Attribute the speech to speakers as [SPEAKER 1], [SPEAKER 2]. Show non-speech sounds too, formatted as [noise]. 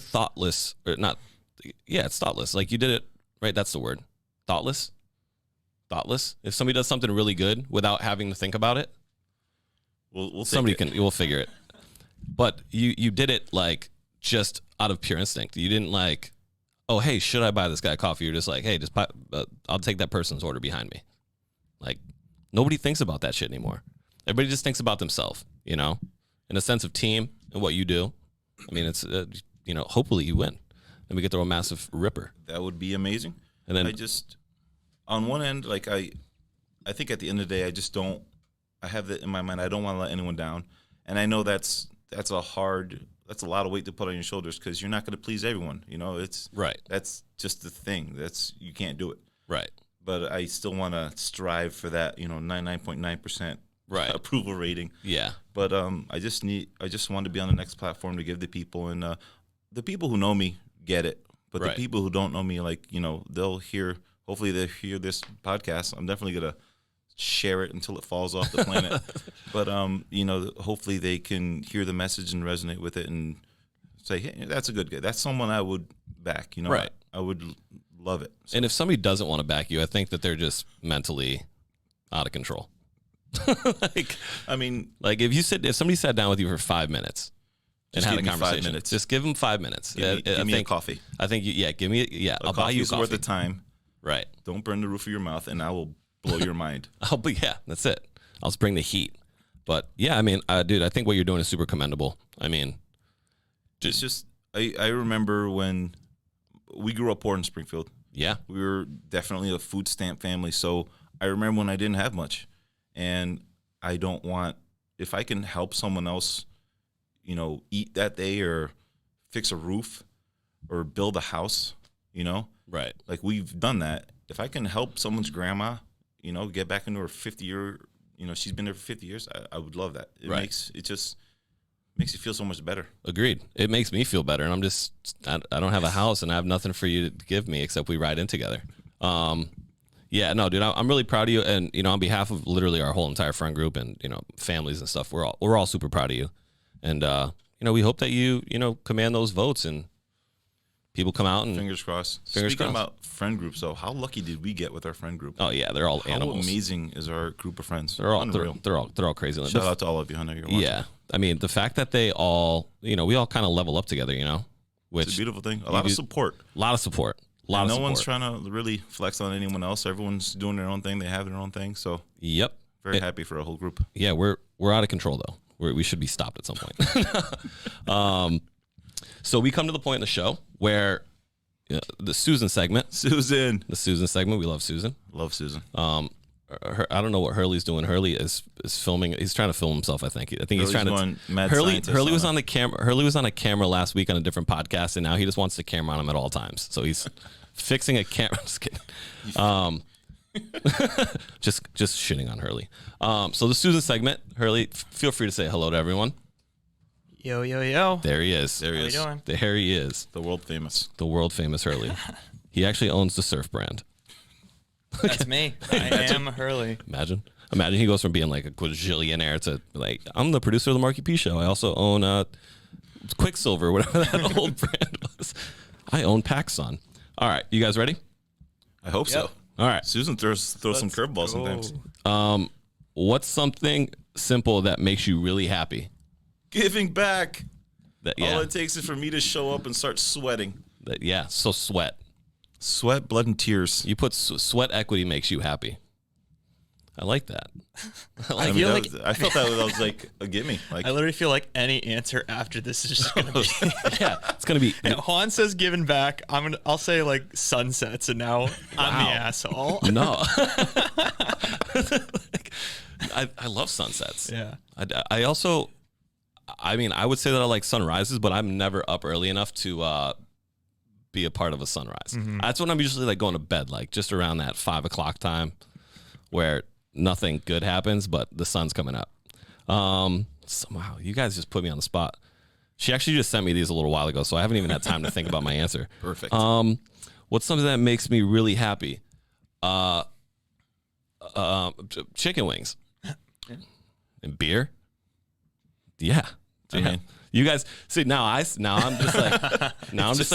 [SPEAKER 1] thoughtless or not yeah, it's thoughtless. Like you did it right, that's the word. Thoughtless. Thoughtless. If somebody does something really good without having to think about it,
[SPEAKER 2] We'll, we'll take
[SPEAKER 1] somebody
[SPEAKER 2] it.
[SPEAKER 1] can we'll figure it. But you you did it like just out of pure instinct. You didn't like, oh hey, should I buy this guy coffee? You're just like, hey, just buy, uh, I'll take that person's order behind me. Like nobody thinks about that shit anymore. Everybody just thinks about themselves, you know, in a sense of team and what you do. I mean, it's uh, you know, hopefully you win, and we get throw a massive ripper,
[SPEAKER 2] That would be amazing.
[SPEAKER 1] and then
[SPEAKER 2] I just, on one end, like I, I think at the end of the day, I just don't. I have that in my mind. I don't want to let anyone down, and I know that's that's a hard, that's a lot of weight to put on your shoulders because you're not going to please everyone. You know, it's
[SPEAKER 1] right,
[SPEAKER 2] that's just the thing. That's you can't do it.
[SPEAKER 1] right,
[SPEAKER 2] But I still want to strive for that. You know, ninety nine point nine percent
[SPEAKER 1] right,
[SPEAKER 2] approval rating.
[SPEAKER 1] yeah,
[SPEAKER 2] But um, I just need, I just want to be on the next platform to give the people and uh, the people who know me get it. But
[SPEAKER 1] Right.
[SPEAKER 2] the people who don't know me, like you know, they'll hear. Hopefully, they will hear this podcast. I'm definitely gonna share it until it falls off the
[SPEAKER 1] [laughs]
[SPEAKER 2] planet. but um, you know, hopefully they can hear the message and resonate with it and say, hey, that's a good guy. That's someone I would back. You know,
[SPEAKER 1] Right.
[SPEAKER 2] I, I would l- love it.
[SPEAKER 1] And if somebody doesn't want to back you, I think that they're just mentally out of control. [laughs] like,
[SPEAKER 2] I mean,
[SPEAKER 1] like if you sit, if somebody sat down with you for five minutes
[SPEAKER 2] Just
[SPEAKER 1] and had
[SPEAKER 2] give
[SPEAKER 1] a
[SPEAKER 2] me five
[SPEAKER 1] conversation,
[SPEAKER 2] minutes.
[SPEAKER 1] just give them five minutes.
[SPEAKER 2] give
[SPEAKER 1] Yeah,
[SPEAKER 2] me,
[SPEAKER 1] I,
[SPEAKER 2] give me
[SPEAKER 1] think,
[SPEAKER 2] a coffee.
[SPEAKER 1] I think, you, yeah, give me, yeah,
[SPEAKER 2] A
[SPEAKER 1] I'll buy you a
[SPEAKER 2] coffee's
[SPEAKER 1] coffee.
[SPEAKER 2] worth of time.
[SPEAKER 1] right. [laughs]
[SPEAKER 2] Don't burn the roof of your mouth, and I will blow your mind.
[SPEAKER 1] I'll be, yeah, that's it. I'll just bring the heat. But yeah, I mean, uh, dude, I think what you're doing is super commendable. I mean,
[SPEAKER 2] it's just I, I remember when we grew up poor in Springfield.
[SPEAKER 1] yeah,
[SPEAKER 2] We were definitely a food stamp family, so I remember when I didn't have much, and I don't want if I can help someone else, you know, eat that day or fix a roof or build a house, you know,
[SPEAKER 1] right,
[SPEAKER 2] like we've done that. If I can help someone's grandma, you know, get back into her 50 year, you know, she's been there for 50 years, I, I would love that. It
[SPEAKER 1] Right.
[SPEAKER 2] makes it just makes you feel so much better.
[SPEAKER 1] agreed. It makes me feel better, and I'm just, I, I don't have a house, and I have nothing for you to give me except we ride in together. Um, yeah, no, dude, I, I'm really proud of you, and you know, on behalf of literally our whole entire friend group and you know families and stuff, we're all we're all super proud of you, and uh, you know, we hope that you you know command those votes and people come out and
[SPEAKER 2] Fingers crossed.
[SPEAKER 1] Fingers
[SPEAKER 2] Speaking
[SPEAKER 1] crossed.
[SPEAKER 2] about friend groups, though, how lucky did we get with our friend group?
[SPEAKER 1] oh yeah, they're all
[SPEAKER 2] how
[SPEAKER 1] animals.
[SPEAKER 2] amazing is our group of friends?
[SPEAKER 1] They're all they're,
[SPEAKER 2] unreal.
[SPEAKER 1] they're all they're all crazy.
[SPEAKER 2] Shout out to all of you. I know you're watching.
[SPEAKER 1] yeah, I mean, the fact that they all you know we all kind of level up together, you know,
[SPEAKER 2] It's a
[SPEAKER 1] which a
[SPEAKER 2] beautiful thing. A lot of
[SPEAKER 1] do-
[SPEAKER 2] support.
[SPEAKER 1] lot of support, a lot
[SPEAKER 2] no
[SPEAKER 1] of support.
[SPEAKER 2] one's trying to really flex on anyone else. Everyone's doing their own thing. They have their own thing. So
[SPEAKER 1] yep,
[SPEAKER 2] very happy for a whole group.
[SPEAKER 1] yeah, we're we're out of control though. We're, we should be stopped at some point. [laughs] um, so we come to the point in the show where uh, the Susan segment,
[SPEAKER 2] Susan,
[SPEAKER 1] the Susan segment, we love Susan.
[SPEAKER 2] love Susan.
[SPEAKER 1] Um, her, I don't know what Hurley's doing. Hurley is is filming. He's trying to film himself. I think. I think he's
[SPEAKER 2] Hurley's
[SPEAKER 1] trying to.
[SPEAKER 2] going mad
[SPEAKER 1] Hurley
[SPEAKER 2] scientist
[SPEAKER 1] Hurley
[SPEAKER 2] on
[SPEAKER 1] was
[SPEAKER 2] it.
[SPEAKER 1] on the camera. Hurley was on a camera last week on a different podcast, and now he just wants the camera on him at all times. So
[SPEAKER 2] [laughs]
[SPEAKER 1] he's fixing a [laughs] camera. Just kidding. Um, [laughs] just just shitting on Hurley. Um, so the Susan segment. Hurley, f- feel free to say hello to everyone.
[SPEAKER 3] Yo, yo, yo.
[SPEAKER 1] There he is. There
[SPEAKER 3] How you is. doing?
[SPEAKER 1] There he is.
[SPEAKER 2] The world famous.
[SPEAKER 1] The world famous
[SPEAKER 2] [laughs]
[SPEAKER 1] Hurley. he actually owns the surf brand.
[SPEAKER 3] [laughs]
[SPEAKER 2] [laughs]
[SPEAKER 3] That's me. I am Hurley.
[SPEAKER 1] Imagine. Imagine he goes from being like a quadrillionaire to like, I'm the producer of the Marky P show. I also own uh, Quicksilver, [laughs] whatever that old brand was. I own Paxson. All right. You guys ready?
[SPEAKER 2] I hope so.
[SPEAKER 3] Yep.
[SPEAKER 1] All right.
[SPEAKER 2] Susan throws throws some curveballs sometimes.
[SPEAKER 3] Go.
[SPEAKER 1] What's something simple that makes you really happy?
[SPEAKER 2] Giving back.
[SPEAKER 1] That, yeah.
[SPEAKER 2] All it takes is for me to show up and start sweating.
[SPEAKER 1] that- yeah. So sweat.
[SPEAKER 2] Sweat, blood, and tears.
[SPEAKER 1] You put s- sweat equity makes you happy. I like that. [laughs] I like
[SPEAKER 2] I,
[SPEAKER 1] it.
[SPEAKER 2] mean,
[SPEAKER 3] feel
[SPEAKER 2] that
[SPEAKER 3] like-
[SPEAKER 2] was, I felt that was, that was like a gimme.
[SPEAKER 1] [laughs]
[SPEAKER 2] Like
[SPEAKER 3] I literally feel like any answer after this is
[SPEAKER 2] [laughs]
[SPEAKER 3] just gonna be.
[SPEAKER 1] Yeah. It's going to be.
[SPEAKER 3] If [laughs] Juan says "giving back. I'm gonna. I'll say like sunsets, and now I'm the asshole. [laughs]
[SPEAKER 1] No. [laughs] Like, I, I love sunsets.
[SPEAKER 3] Yeah.
[SPEAKER 1] I, I also, I mean, I would say that I like sunrises, but I'm never up early enough to uh, be a part of a sunrise. That's when I'm usually like going to bed, like just around that five o'clock time where nothing good happens, but the sun's coming up. Um, so, wow, you guys just put me on the spot. She actually just sent me these a little while ago, so I haven't even had time to think about my answer.
[SPEAKER 2] perfect.
[SPEAKER 1] Um, what's something that makes me really happy? Uh, um, ch- chicken wings and beer. Yeah,
[SPEAKER 2] Amen.
[SPEAKER 1] You guys see now I s- now I'm just like now I'm just